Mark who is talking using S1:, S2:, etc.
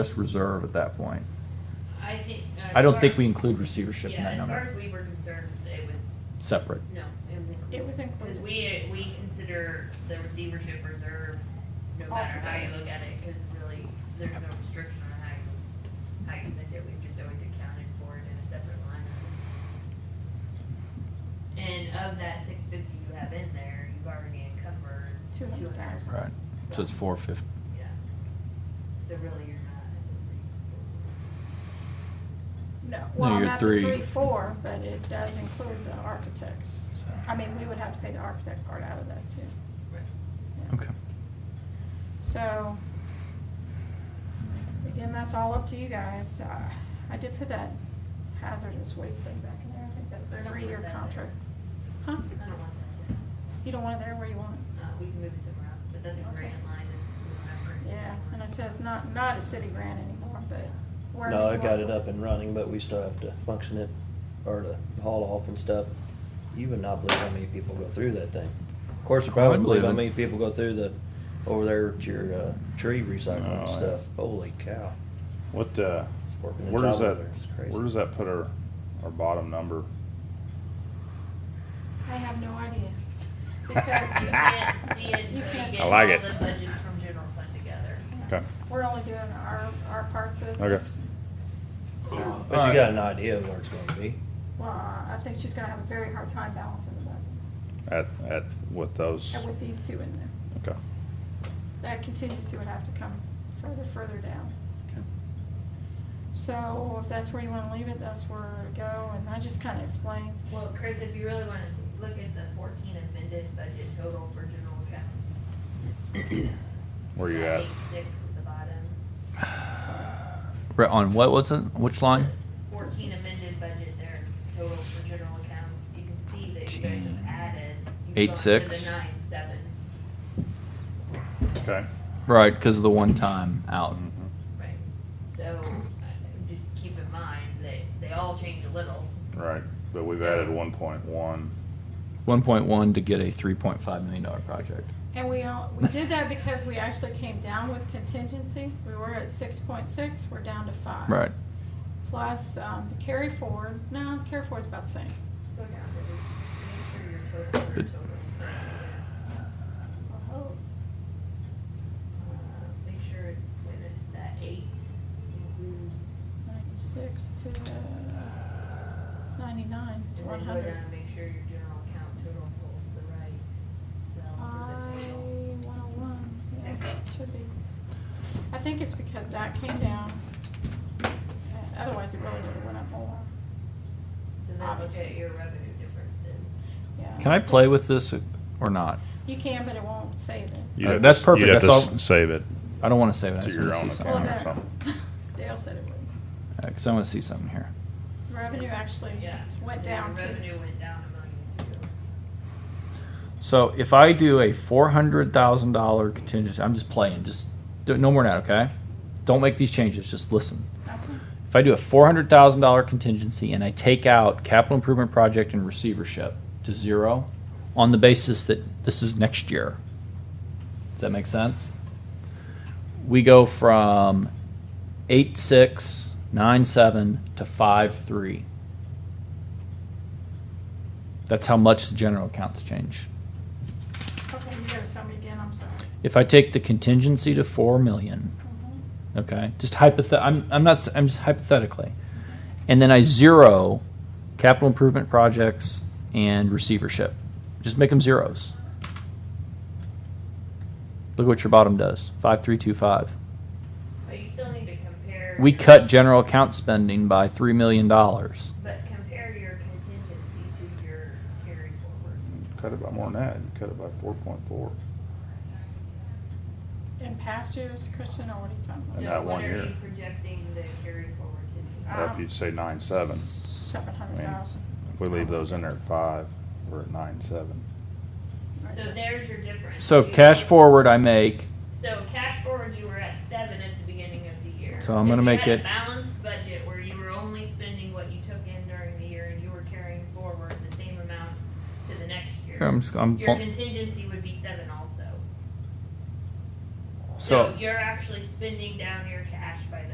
S1: just reserve at that point.
S2: I think. as
S1: I don't
S2: far
S1: think
S2: as-
S1: we include receivership in
S2: Yeah,
S1: that
S2: as far
S1: number,
S2: as we were concerned, it was,
S1: separate.
S2: no.
S3: It was
S2: Because
S3: included.
S2: we, we consider the receivership reserve, no matter how you look at it, because really, there's no restriction on how you, how you spend it. We've just always accounted for it in a separate line. item. And of that six fifty you have in there, you've already encumbered two hundred
S3: 200,000.
S2: thousand.
S1: Right, so it's four fifty.
S2: Yeah. So really, you're not. at the three.
S3: No, well,
S1: you're
S3: not the
S1: three.
S3: three, four, but it does include the architects. I mean, we would have to pay the architect part out of that too.
S2: Right.
S3: Yeah.
S1: Okay.
S3: So, again, that's all up to you guys. Uh, I did put that hazardous waste thing back in there. I think that was
S2: I
S3: a
S2: don't want
S3: three-year
S2: that Uh-huh.
S3: contract. Huh?
S2: I don't want that.
S3: You don't want it there where you want it?
S2: Uh, we can move it somewhere else, but that's a
S3: Okay.
S2: grant line, it's whatever.
S3: Yeah, and it says not, not a city grant anymore, but wherever
S4: No,
S3: you
S4: I got
S3: want
S4: it up and running, but we still have to function it, or to haul off and stuff. You would not believe how many people go through that thing. Of course, you
S1: I
S4: probably
S1: wouldn't
S4: believe how
S1: believe it.
S4: many people go through the, over there at your, uh, tree
S5: No,
S4: recycling
S5: I-
S4: and stuff. Holy cow.
S5: What, uh,
S4: Working the
S5: where does
S4: job
S5: that,
S4: over there is crazy.
S5: where does that put our, our bottom number?
S3: I have no idea.
S2: You
S3: Because
S2: can't see it
S3: You
S2: until
S3: can't.
S2: you
S5: I like
S2: get all
S5: it.
S2: the budgets from general fund together.
S5: Okay,
S3: we're only doing our, our parts of it.
S5: okay.
S3: So,
S4: But you got an idea of where it's gonna be.
S3: well, I think she's gonna have a very hard time balancing the budget.
S5: At, at, with those,
S3: And with these two in there,
S5: okay.
S3: that contingency would have to come further, further down. So if that's where you wanna leave it, that's where to go, and that just kinda explains.
S2: Well, Chris, if you really wanna look at the fourteen amended budget total for general accounts.
S5: Where you at?
S2: Page Six at the bottom,
S1: Right, on what was it, which line?
S2: fourteen amended budget there, total for general accounts, you can see that you guys
S1: Gee.
S2: have added. you've
S1: Eight
S2: gone to
S1: six?
S2: The nine, seven,
S5: Okay.
S1: Right, because of the one time out.
S5: Mhm.
S2: right, so, uh, just keep in mind that they all change a little,
S5: Right, but we've added one point one.
S1: One point one to get a three point five million dollar project.
S3: And we all, we did that because we actually came down with contingency, we were at six point six, we're down to five.
S1: Right,
S3: Plus, um, the carry forward, no, the carry forward's about the same.
S2: Go down to the, make sure your total, your
S1: Good.
S2: total.
S3: Oh,
S2: Uh, Make sure, it- wait a minute, that eight includes,
S3: Ninety-six to uh, ninety-nine
S2: and
S3: to
S2: then
S3: one
S2: go down
S3: hundred.
S2: and make sure your general account total pulls the right
S3: I
S2: cell for the total.
S3: one oh one, yeah, it should be. I think it's because that came down. Uh, Otherwise, it really would've went up more.
S2: So then look
S3: Obviously.
S2: at your revenue differences.
S3: Yeah.
S1: can I play with this or not?
S3: You can, but it won't save it.
S5: You'd have
S1: Uh, That's
S5: to-
S1: perfect,
S5: You'd have
S1: that's
S5: to
S1: all-
S5: s- save it.
S1: I don't want to save it, I
S5: To
S1: just
S5: your
S1: want to see
S5: own
S3: Well,
S1: something.
S5: account.
S3: no.
S5: something.
S3: Dale said it would.
S1: Because I want to see something here.
S3: Revenue actually
S2: Yeah.
S3: went
S2: So your
S3: down to,
S2: Revenue went down a million two.
S1: So if I do a four hundred thousand dollar contingency, I'm just playing. Just do, no more now, okay? Don't make these changes. Just listen.
S3: okay,
S1: If I do a four hundred thousand dollar contingency and I take out capital improvement project and receivership to zero, on the basis that this is next year. Does that make sense? We go from eight six nine seven to five three. That's how much the general accounts change.
S3: okay, you gotta tell me again, I'm sorry.
S1: If I take the contingency to four million,
S3: Mhm.
S1: okay, just hypothet, I'm, I'm not, s- I'm just hypothetically, and then I zero capital improvement projects and receivership, just make them zeros. Look what your bottom does, five, three, two, five.
S2: But you still need to compare.
S1: We
S2: your-
S1: cut general account spending by three million dollars.
S2: But compare your contingency to your carry forward.
S5: Cut it by more than that, you cut it by four point four.
S3: In past years, Kristen, or what are you talking
S5: And
S3: about?
S2: So
S5: that one
S2: What
S5: year.
S2: are you projecting the carry forward to
S3: Uh,
S2: be?
S5: If you'd say nine seven,
S3: Seven hundred thousand.
S5: if we leave those in there at five, we're at nine seven.
S2: So there's your difference.
S1: So if
S2: You-
S1: cash forward I make,
S2: So cash forward, you were at seven at the beginning of the year.
S1: So I'm gonna
S2: If you
S1: make
S2: had a
S1: it-
S2: Balanced budget where you were only spending what you took in during the year and you were carrying forward the same amount to the next year.
S1: I'm, just- I'm,
S2: Your contingency would be seven also.
S1: so,
S2: you're actually spending down your cash